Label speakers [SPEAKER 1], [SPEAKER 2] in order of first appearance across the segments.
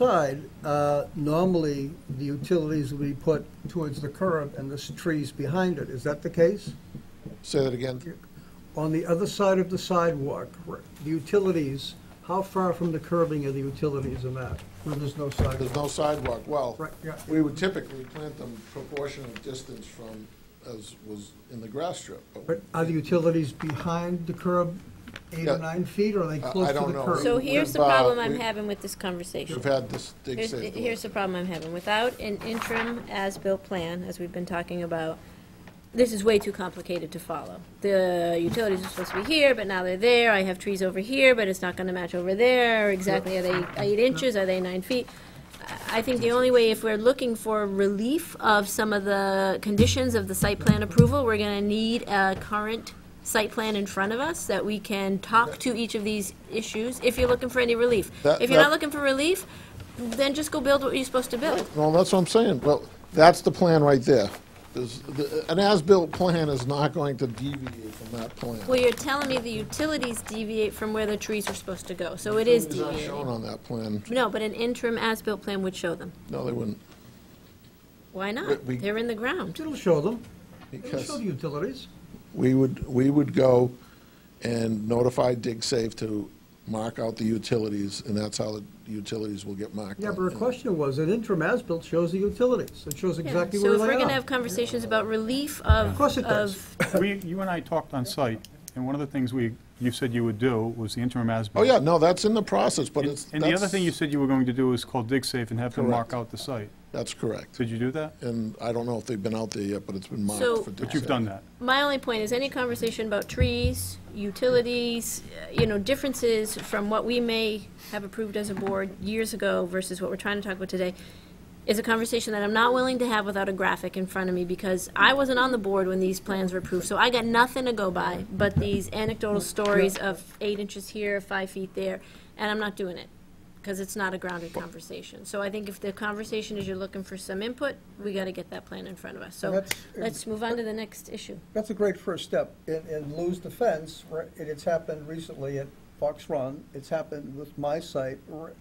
[SPEAKER 1] side, uh, normally, the utilities will be put towards the curb and the s- trees behind it. Is that the case?
[SPEAKER 2] Say that again.
[SPEAKER 1] On the other side of the sidewalk, r- the utilities, how far from the curbing are the utilities in that, where there's no
[SPEAKER 2] There's
[SPEAKER 1] sidewalk?
[SPEAKER 2] no sidewalk. Well,
[SPEAKER 1] Right, yeah.
[SPEAKER 2] we would typically plant them proportionate distance from, as was in the grass strip.
[SPEAKER 1] But are the utilities behind the curb eight
[SPEAKER 2] Yeah.
[SPEAKER 1] or nine feet, or are they
[SPEAKER 2] I-
[SPEAKER 1] close
[SPEAKER 2] I
[SPEAKER 1] to the
[SPEAKER 2] don't know.
[SPEAKER 1] curb?
[SPEAKER 2] So
[SPEAKER 3] So here's the
[SPEAKER 2] We've, uh,
[SPEAKER 3] problem I'm
[SPEAKER 2] we-
[SPEAKER 3] having with this conversation.
[SPEAKER 2] We've had this dig
[SPEAKER 3] Here's,
[SPEAKER 2] safe.
[SPEAKER 3] here's the problem I'm having. Without an interim as-built plan, as we've been talking about, this is way too complicated to follow. The utilities are supposed to be here, but now they're there. I have trees over here, but it's not gonna match over there. Exactly, are they eight inches? Are they nine feet? I- I think the only way, if we're looking for relief of some of the conditions of the site plan approval, we're gonna need a current site plan in front of us that we can talk to each of these issues, if you're looking for any relief.
[SPEAKER 2] That-
[SPEAKER 3] If you're not
[SPEAKER 2] that-
[SPEAKER 3] looking for relief, then just go build what you're supposed to build.
[SPEAKER 2] Well, that's what I'm saying. Well, that's the plan right there. There's, the- an as-built plan is not going to deviate from that
[SPEAKER 3] Well,
[SPEAKER 2] plan.
[SPEAKER 3] you're telling me the utilities deviate from where the trees are supposed to go, so it is
[SPEAKER 2] It's not shown
[SPEAKER 3] deviating.
[SPEAKER 2] on that plan.
[SPEAKER 3] No, but an interim as-built plan would show them.
[SPEAKER 2] No, they wouldn't.
[SPEAKER 3] Why
[SPEAKER 2] We-
[SPEAKER 3] not?
[SPEAKER 2] we-
[SPEAKER 3] They're in the ground.
[SPEAKER 1] It'll show them. It'll
[SPEAKER 2] Because
[SPEAKER 1] show the utilities.
[SPEAKER 2] we would, we would go and notify dig safe to mark out the utilities, and that's how the utilities will get marked.
[SPEAKER 1] Yeah,
[SPEAKER 2] out.
[SPEAKER 1] but her question was, an interim as-built shows the utilities. It shows
[SPEAKER 3] Yeah,
[SPEAKER 1] exactly
[SPEAKER 3] So
[SPEAKER 1] where
[SPEAKER 3] if
[SPEAKER 1] they are.
[SPEAKER 3] we're gonna have conversations about relief of.
[SPEAKER 1] Of course it does.
[SPEAKER 3] of-
[SPEAKER 4] We, you and I talked on site, and one of the things we, you said you would do was the interim
[SPEAKER 2] Oh,
[SPEAKER 4] as-built.
[SPEAKER 2] yeah, no, that's in the process, but
[SPEAKER 4] And
[SPEAKER 2] it's.
[SPEAKER 4] and the other thing you
[SPEAKER 2] that's-
[SPEAKER 4] said you were going to do is call DigSafe and have them
[SPEAKER 2] Correct.
[SPEAKER 4] mark out the site.
[SPEAKER 2] That's correct.
[SPEAKER 4] Did you do that?
[SPEAKER 2] And I don't know if they've been out there yet, but it's been marked
[SPEAKER 3] So-
[SPEAKER 2] for dig
[SPEAKER 4] But you've
[SPEAKER 2] safe.
[SPEAKER 4] done that.
[SPEAKER 3] My only point is any conversation about trees, utilities, uh, you know, differences from what we may have approved as a board years ago versus what we're trying to talk about today is a conversation that I'm not willing to have without a graphic in front of me because I wasn't on the board when these plans were approved, so I got nothing to go by but these anecdotal stories of eight inches here, five feet there, and I'm not doing it because it's not a grounded conversation. So I think if the conversation is you're looking for some input, we got to get that plan in front of us. So
[SPEAKER 1] That's-
[SPEAKER 3] let's move on to the next issue.
[SPEAKER 1] That's a great first step. In, in Lou's defense, right, and it's happened recently at Fox Run, it's happened with my site. R-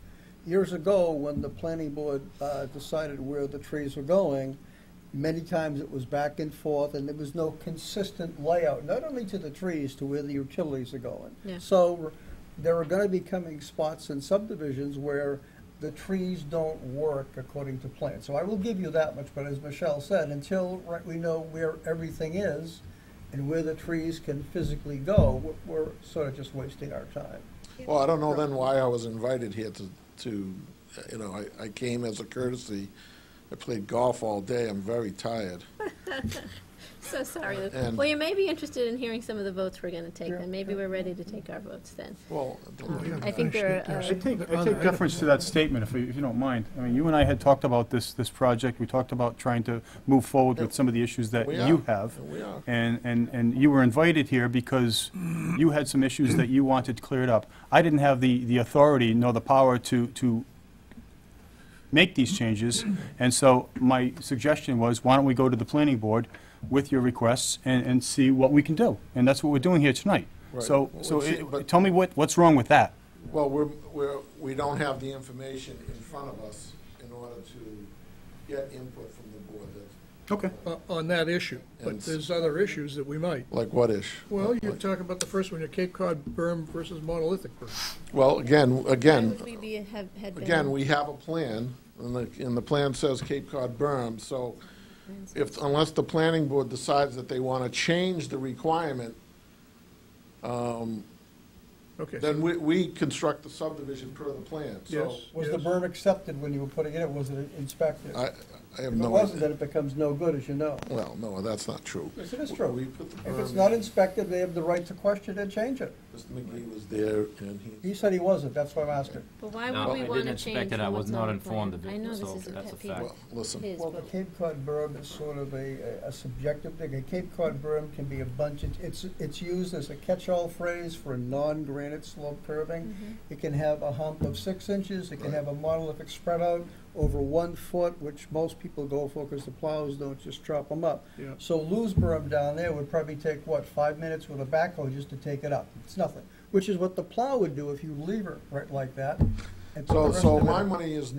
[SPEAKER 1] Years ago, when the planning board uh, decided where the trees were going, many times it was back and forth, and there was no consistent layout, not only to the trees, to where the utilities are going.
[SPEAKER 3] Yeah.
[SPEAKER 1] So r- there are gonna be coming spots in subdivisions where the trees don't work according to plan. So I will give you that much, but as Michelle said, until, right, we know where everything is and where the trees can physically go, we're- we're sort of just wasting our time.
[SPEAKER 2] Well, I don't know then why I was invited here to, to, uh, you know, I, I came as a courtesy. I played golf all day. I'm very tired.
[SPEAKER 3] So sorry, Lou.
[SPEAKER 2] And-
[SPEAKER 3] Well, you may be interested in hearing some of the votes we're gonna take,
[SPEAKER 1] Yeah.
[SPEAKER 3] then maybe we're ready to take our votes then.
[SPEAKER 2] Well, I don't know.
[SPEAKER 3] I think there are,
[SPEAKER 4] I
[SPEAKER 3] uh,
[SPEAKER 4] take, I take deference to that statement, if you if you don't mind. I mean, you and I had talked about this, this project, we talked about trying to move forward with some of the issues that
[SPEAKER 2] We are.
[SPEAKER 4] you have.
[SPEAKER 2] We are.
[SPEAKER 4] And, and, and you were invited here because you had some issues that you wanted cleared up. I didn't have the, the authority nor the power to, to make these changes, and so my suggestion was, why don't we go to the planning board with your requests and, and see what we can do? And that's what we're doing here tonight.
[SPEAKER 2] Right.
[SPEAKER 4] So,
[SPEAKER 2] Well,
[SPEAKER 4] so
[SPEAKER 2] see,
[SPEAKER 4] it-
[SPEAKER 2] but-
[SPEAKER 4] tell me what, what's wrong with that?
[SPEAKER 2] Well, we're, we're, we don't have the information in front of us in order to get input from the board. That's-
[SPEAKER 4] Okay.
[SPEAKER 5] o- on that issue, but
[SPEAKER 2] And-
[SPEAKER 5] there's other issues that we might.
[SPEAKER 2] Like what ish?
[SPEAKER 5] Well, you talk about the first one, your Cape Cod berm versus monolithic berm.
[SPEAKER 2] Well, again,
[SPEAKER 3] why
[SPEAKER 2] again,
[SPEAKER 3] would we be, have, had been?
[SPEAKER 2] again, we have a plan, and the, and the plan says Cape Cod berm, so if, unless the planning board decides that they want to change the requirement,
[SPEAKER 5] Okay,
[SPEAKER 2] then we, we construct the subdivision per the plan, so.
[SPEAKER 5] Yes.
[SPEAKER 1] Was the berm accepted when you were putting it in? Was it inspected?
[SPEAKER 2] I, I have
[SPEAKER 1] If it
[SPEAKER 2] no
[SPEAKER 1] wasn't, then it
[SPEAKER 2] idea.
[SPEAKER 1] becomes no good, as you know.
[SPEAKER 2] Well, no, that's not true.
[SPEAKER 1] Yes, it is true. um,
[SPEAKER 2] We put the
[SPEAKER 1] If it's
[SPEAKER 2] berm
[SPEAKER 1] not
[SPEAKER 2] in.
[SPEAKER 1] inspected, they have the right to question and change it.
[SPEAKER 2] Mr. McGee was there, and he,
[SPEAKER 1] He said he wasn't, that's why I'm asking.
[SPEAKER 3] But why
[SPEAKER 6] No,
[SPEAKER 3] would we
[SPEAKER 6] I
[SPEAKER 3] wanna
[SPEAKER 6] didn't expect
[SPEAKER 3] change
[SPEAKER 6] it. I
[SPEAKER 3] from
[SPEAKER 6] was
[SPEAKER 3] what's
[SPEAKER 6] not
[SPEAKER 3] on the
[SPEAKER 6] informed
[SPEAKER 3] plan?
[SPEAKER 6] of it,
[SPEAKER 3] I know this
[SPEAKER 6] so
[SPEAKER 3] is a
[SPEAKER 6] that's
[SPEAKER 3] pet
[SPEAKER 6] a
[SPEAKER 3] peeve.
[SPEAKER 6] fact.
[SPEAKER 2] well, listen.
[SPEAKER 3] It is,
[SPEAKER 1] Well, the
[SPEAKER 3] but-
[SPEAKER 1] Cape Cod berm is sort of a, a subjective thing. A Cape Cod berm can be a bunch, of- it's, it's used as a catch-all phrase for a non-granite slope curving.
[SPEAKER 3] Mm-hmm.
[SPEAKER 1] It can have a hump of six inches, it can have a monolithic spread out over one foot, which most people go for because the plows don't just chop them up.
[SPEAKER 5] Yeah.
[SPEAKER 1] So Lou's berm down there would probably take, what, five minutes with a backhoe just to take it up? It's nothing, which is what the plow would do if you leave it right like that. And
[SPEAKER 2] So,
[SPEAKER 1] the rest
[SPEAKER 2] so
[SPEAKER 1] of it-
[SPEAKER 2] my money is